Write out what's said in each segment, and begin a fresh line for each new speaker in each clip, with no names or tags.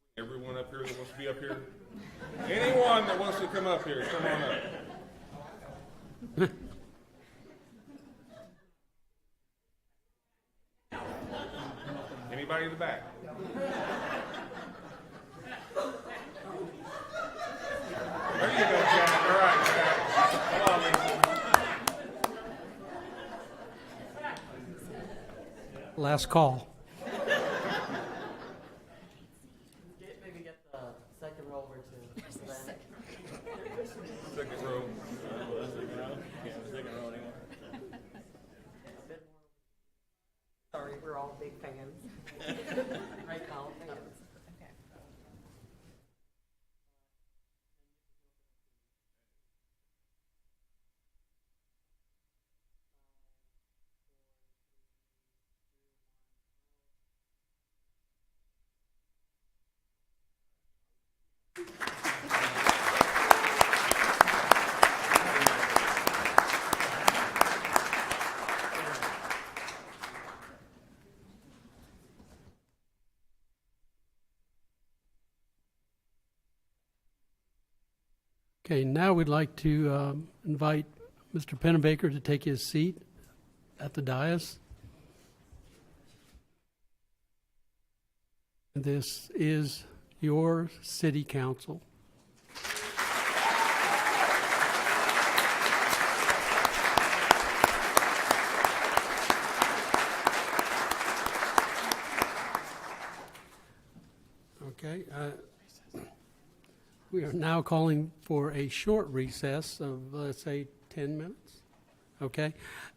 up here that wants to be up here? Anyone that wants to come up here, come on up. Anybody in the back? There you go, Jack. All right, Jack. Come on, Lisa.
Last call.
Get, maybe get the second row over to Savannah.
Second row.
Sorry, we're all big fans. Right now, fans.
Okay, now we'd like to um, invite Mr. Pennebaker to take his seat at the dais. This is your city council. Okay, uh, we are now calling for a short recess of, let's say, 10 minutes, okay?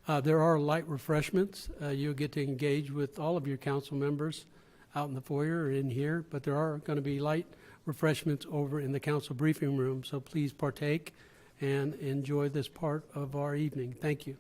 Uh, There are light refreshments. Uh, You'll get to engage with all of your council members out in the foyer or in here, but there are going to be light refreshments over in the council briefing room, so please partake and enjoy this part of our evening. Thank you.